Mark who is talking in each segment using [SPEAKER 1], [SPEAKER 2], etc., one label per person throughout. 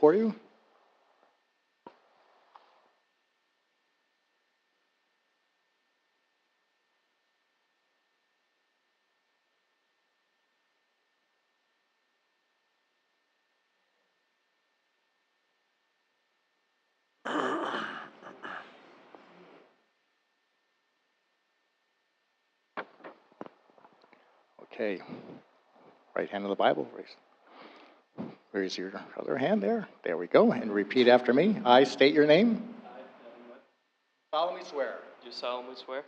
[SPEAKER 1] for you? Okay. Right hand of the Bible, raise. Raise your other hand there. There we go. And repeat after me. I state your name. solemnly swear
[SPEAKER 2] Do solemnly swear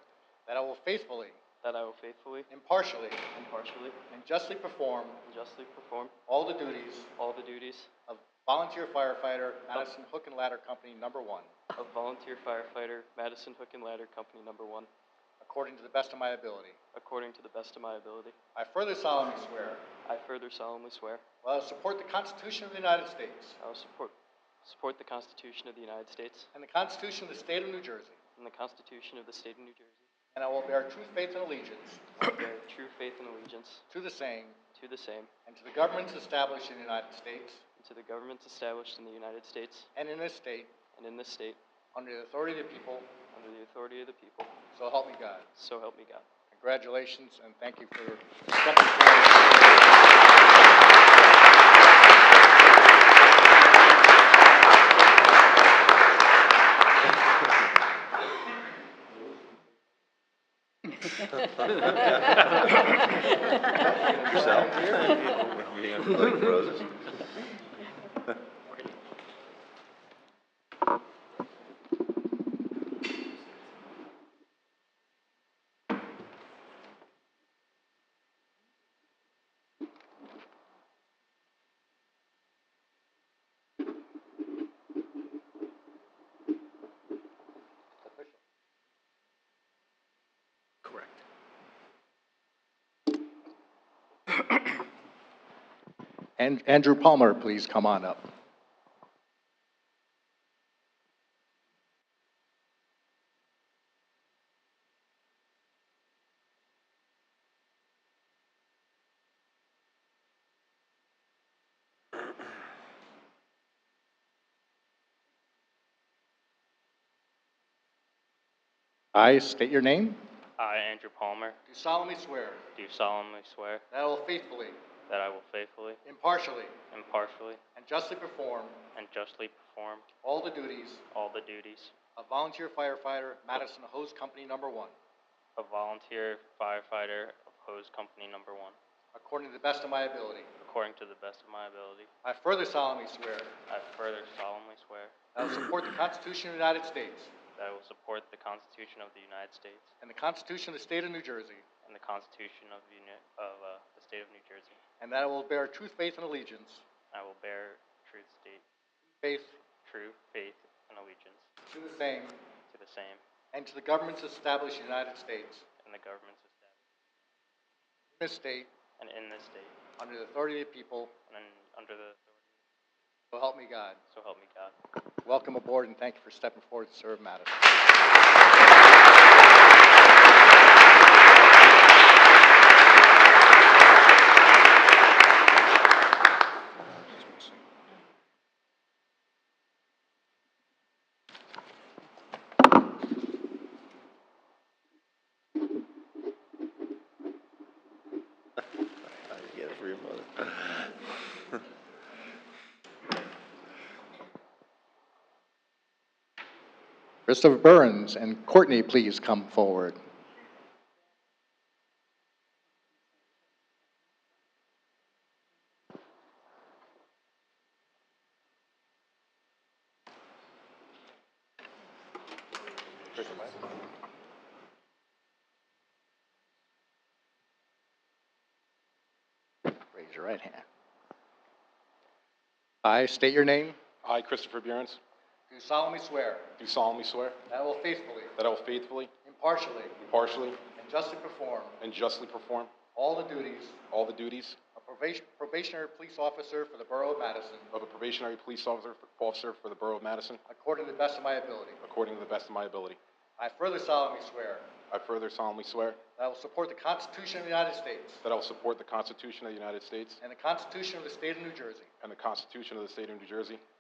[SPEAKER 1] that I will faithfully,
[SPEAKER 2] that I will faithfully,
[SPEAKER 1] impartially,
[SPEAKER 2] impartially,
[SPEAKER 1] and justly perform
[SPEAKER 2] and justly perform
[SPEAKER 1] all the duties
[SPEAKER 2] all the duties
[SPEAKER 1] of volunteer firefighter, Madison Hook and Ladder Company, number one,
[SPEAKER 2] of volunteer firefighter Madison Hook and Ladder Company Number One,
[SPEAKER 1] according to the best of my ability.
[SPEAKER 2] according to the best of my ability.
[SPEAKER 1] I further solemnly swear
[SPEAKER 2] I further solemnly swear
[SPEAKER 1] that I will support the Constitution of the United States
[SPEAKER 2] I will support support the Constitution of the United States
[SPEAKER 1] and the Constitution of the State of New Jersey,
[SPEAKER 2] and the Constitution of the State of New Jersey.
[SPEAKER 1] and I will bear true faith and allegiance
[SPEAKER 2] I bear true faith and allegiance
[SPEAKER 1] to the same
[SPEAKER 2] to the same
[SPEAKER 1] and to the governments established in the United States
[SPEAKER 2] and to the governments established in the United States
[SPEAKER 1] and in this state
[SPEAKER 2] and in this state
[SPEAKER 1] under the authority of the people,
[SPEAKER 2] under the authority of the people.
[SPEAKER 1] so help me God.
[SPEAKER 2] So help me God.
[SPEAKER 1] Congratulations, and thank you for stepping forward.
[SPEAKER 3] yourself. Yeah, like roses.
[SPEAKER 1] Correct. And Andrew Palmer, please come on up. I state your name.
[SPEAKER 4] I, Andrew Palmer,
[SPEAKER 1] Do solemnly swear
[SPEAKER 4] do solemnly swear
[SPEAKER 1] that I will faithfully,
[SPEAKER 4] that I will faithfully,
[SPEAKER 1] impartially,
[SPEAKER 4] impartially,
[SPEAKER 1] and justly perform
[SPEAKER 4] and justly perform
[SPEAKER 1] all the duties
[SPEAKER 4] all the duties
[SPEAKER 1] of volunteer firefighter, Madison Hose Company Number One,
[SPEAKER 4] of volunteer firefighter of hose company number one,
[SPEAKER 1] according to the best of my ability.
[SPEAKER 4] according to the best of my ability.
[SPEAKER 1] I further solemnly swear that
[SPEAKER 4] I further solemnly swear
[SPEAKER 1] I will support the Constitution of the United States
[SPEAKER 4] that I will support the Constitution of the United States
[SPEAKER 1] and the Constitution of the State of New Jersey,
[SPEAKER 4] and the Constitution of the, Uni- of, uh, the state of New Jersey.
[SPEAKER 1] and that I will bear true faith and allegiance,
[SPEAKER 4] I will bear true state,
[SPEAKER 1] faith
[SPEAKER 4] true faith and allegiance
[SPEAKER 1] to the same,
[SPEAKER 4] to the same
[SPEAKER 1] and to the governments established in the United States,
[SPEAKER 4] and the governments established
[SPEAKER 1] in this state,
[SPEAKER 4] and in this state
[SPEAKER 1] under the authority of the people,
[SPEAKER 4] and under the authority.
[SPEAKER 1] so help me God.
[SPEAKER 4] So help me God.
[SPEAKER 1] Welcome aboard, and thank you for stepping forward to serve Madison.
[SPEAKER 3] Yeah, for your mother.
[SPEAKER 1] Christopher Burns and Courtney, please come forward. Raise your right hand. I state your name.
[SPEAKER 5] I, Christopher Burns,
[SPEAKER 1] Do solemnly swear
[SPEAKER 5] do solemnly swear
[SPEAKER 1] that I will faithfully,
[SPEAKER 5] that I will faithfully,
[SPEAKER 1] impartially,
[SPEAKER 5] impartially,
[SPEAKER 1] and justly perform
[SPEAKER 5] and justly perform
[SPEAKER 1] all the duties
[SPEAKER 5] all the duties
[SPEAKER 1] of probation- probationary police officer for the Borough of Madison
[SPEAKER 5] of a probationary police officer officer for the Borough of Madison
[SPEAKER 1] according to the best of my ability.
[SPEAKER 5] according to the best of my ability.
[SPEAKER 1] I further solemnly swear
[SPEAKER 5] I further solemnly swear
[SPEAKER 1] that I will support the Constitution of the United States
[SPEAKER 5] that I will support the Constitution of the United States
[SPEAKER 1] and the Constitution of the State of New Jersey,
[SPEAKER 5] and the Constitution of the State of New Jersey,